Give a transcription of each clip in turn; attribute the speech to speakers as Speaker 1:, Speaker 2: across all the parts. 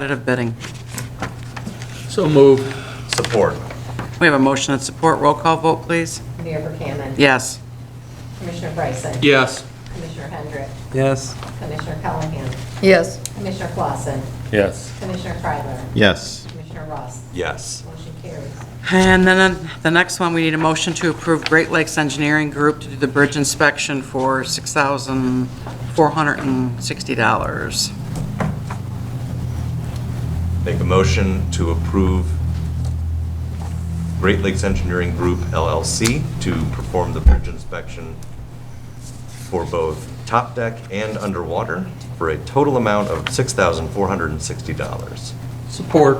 Speaker 1: Competitive bidding.
Speaker 2: So moved.
Speaker 3: Support.
Speaker 1: We have a motion and support. Roll call vote, please.
Speaker 4: Mayor Buchanan.
Speaker 1: Yes.
Speaker 4: Commissioner Bryson.
Speaker 2: Yes.
Speaker 4: Commissioner Hendrick.
Speaker 2: Yes.
Speaker 4: Commissioner Callahan.
Speaker 5: Yes,
Speaker 4: Commissioner Clausen.
Speaker 3: Yes.
Speaker 4: Commissioner Freiler.
Speaker 6: Yes,
Speaker 4: Commissioner Ross.
Speaker 3: Yes.
Speaker 4: Motion carries.
Speaker 1: And then uh, the next one, we need a motion to approve Great Lakes Engineering Group to do the bridge inspection for $6,460.
Speaker 3: Make a motion to approve Great Lakes Engineering Group LLC to perform the bridge inspection for both top deck and underwater for a total amount of $6,460.
Speaker 2: Support.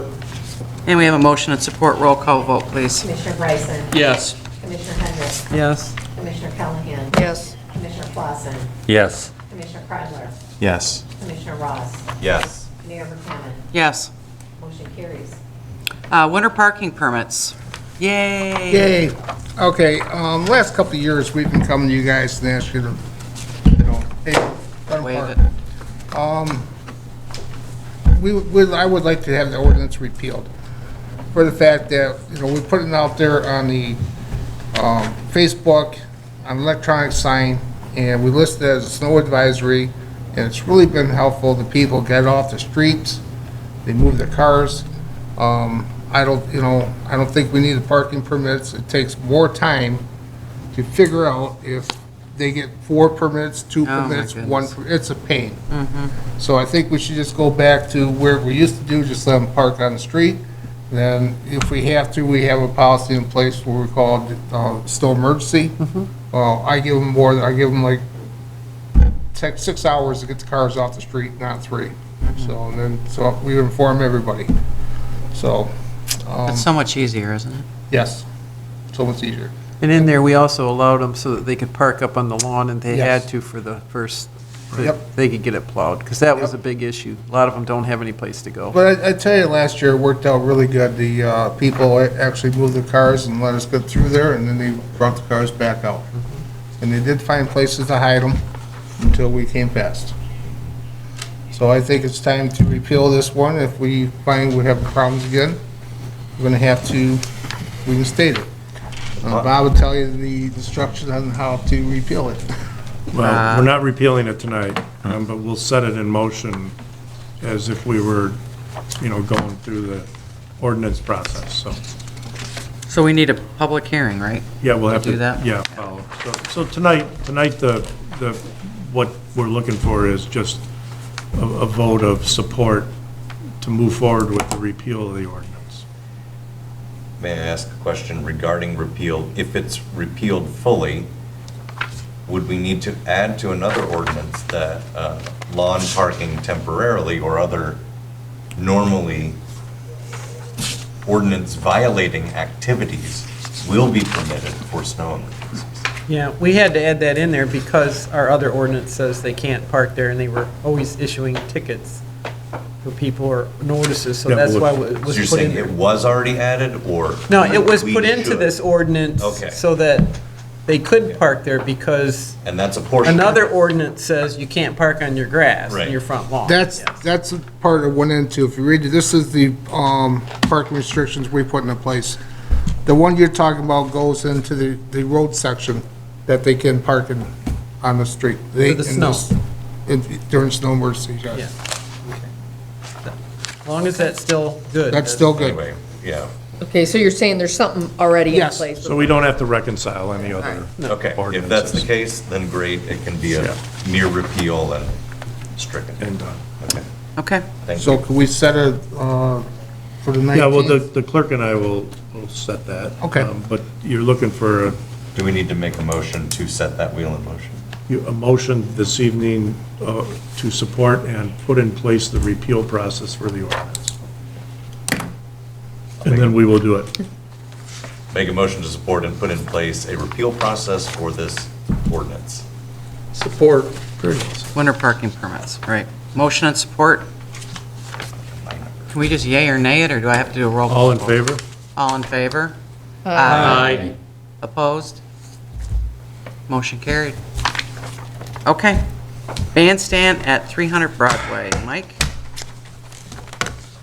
Speaker 1: And we have a motion and support. Roll call vote, please.
Speaker 4: Commissioner Bryson.
Speaker 2: Yes.
Speaker 4: Commissioner Hendrick.
Speaker 2: Yes.
Speaker 4: Commissioner Callahan.
Speaker 5: yes,
Speaker 4: Commissioner Clausen.
Speaker 7: Yes,
Speaker 4: Commissioner Freiler.
Speaker 6: yes,
Speaker 4: Commissioner Ross.
Speaker 3: Yes.
Speaker 4: Mayor Buchanan.
Speaker 1: Yes.
Speaker 4: Motion carries.
Speaker 1: Uh, Winter parking permits. Yay.
Speaker 8: Yay. Okay, um, last couple of years, we've been coming to you guys and asking you to, you know, hey, run
Speaker 1: Waive it.
Speaker 8: park. Um, we, would- I would like to have the ordinance repealed for the fact that, you know, we put it out there on the, um, Facebook, on electronic sign, and we list it as a snow advisory, and it's really been helpful. The people get off the streets, they move their cars. Um, I don't, you know, I don't think we need the parking permits. It takes more time to figure out if they get four permits, two
Speaker 1: Oh, my
Speaker 8: permits, one,
Speaker 1: goodness.
Speaker 8: per- it's a pain. So I think we should just go back to where we used to do, just let them park on the street. Then if we have to, we have a policy in place where we call it uh, snow emergency. Well, I give them more, I give them like take six hours to get the cars off the street, not three. So, and then, so we inform everybody. So, um,
Speaker 1: It's so much easier, isn't it?
Speaker 8: yes, so much easier.
Speaker 2: And in there, we also allowed them so that they could park up on the lawn, and they had
Speaker 8: Yes.
Speaker 2: to for the first,
Speaker 8: Yep.
Speaker 2: they could get it plowed, because that was a
Speaker 8: Yep.
Speaker 2: big issue. A lot of them don't have any place to go.
Speaker 8: But I, I tell you, last year it worked out really good. The, uh, people a- actually moved their cars and let us get through there, and then they brought the cars back out. And they did find places to hide them until we came past. So I think it's time to repeal this one. If we find we have problems again, we're gonna have to reinstate it. Uh, Bob will tell you the instructions on how to repeal it.
Speaker 1: Uh,
Speaker 7: well, we're not repealing it tonight, um, but we'll set it in motion as if we were, you know, going through the ordinance process, so,
Speaker 1: So we need a public hearing, right?
Speaker 7: yeah, we'll have to.
Speaker 1: Do that?
Speaker 7: Yeah, follow. So so tonight, tonight, the, the, what we're looking for is just a, a vote of support to move forward with the repeal of the ordinance.
Speaker 3: May I ask a question regarding repeal? If it's repealed fully, would we need to add to another ordinance that uh, lawn parking temporarily or other normally ordinance violating activities will be permitted for snow emergencies?
Speaker 9: Yeah, we had to add that in there because our other ordinance says they can't park there, and they were always issuing tickets for people or notices, so
Speaker 7: Yeah,
Speaker 9: that's
Speaker 7: well,
Speaker 9: why
Speaker 3: So
Speaker 9: it
Speaker 3: you're
Speaker 9: was put in
Speaker 3: saying it
Speaker 9: there.
Speaker 3: was already added or?
Speaker 9: No, it was
Speaker 3: we
Speaker 9: put into
Speaker 3: should?
Speaker 9: this ordinance
Speaker 3: Okay.
Speaker 9: so that they could park there because
Speaker 3: And that's a portion.
Speaker 9: another ordinance says you can't park on your grass,
Speaker 3: Right.
Speaker 9: in your front lawn.
Speaker 8: That's,
Speaker 9: Yes.
Speaker 8: that's the part I went into. If you read, it, this is the um, parking restrictions we put into place. The one you're talking about goes into the, the road section that they can park in, on the street. They-
Speaker 9: For the
Speaker 8: in
Speaker 9: snow.
Speaker 8: s- in- During snow emergency,
Speaker 9: Yeah.
Speaker 8: yes.
Speaker 9: As long as that's still good.
Speaker 8: That's still good.
Speaker 3: Anyway, yeah,
Speaker 5: okay, so you're saying there's something already in
Speaker 8: Yes.
Speaker 5: place?
Speaker 7: So we don't have to reconcile any other
Speaker 3: okay. If that's the
Speaker 7: ordinances.
Speaker 3: case, then great, it can be
Speaker 7: Yeah.
Speaker 3: a mere repeal and stricken.
Speaker 7: And uh, done.
Speaker 3: Okay,
Speaker 1: Okay.
Speaker 3: thank you.
Speaker 8: So can we set a, uh, for the 19th?
Speaker 7: Yeah, well, the the clerk and I will, will set that.
Speaker 8: Okay.
Speaker 7: Um, But you're looking for a
Speaker 3: Do we need to make a motion to set that wheel in motion?
Speaker 7: you- a motion this evening uh, to support and put in place the repeal process for the ordinance. And then we will do it.
Speaker 3: Make a motion to support and put in place a repeal process for this ordinance.
Speaker 2: Support.
Speaker 1: Winter parking permits, right. Motion and support. Can we just yay or nay it, or do I have to do a roll? call
Speaker 7: All in
Speaker 1: vote?
Speaker 7: favor?
Speaker 1: All in favor?
Speaker 2: Aye.
Speaker 1: Opposed? Motion carried. Okay. Bandstand at 300 Broadway. Mike?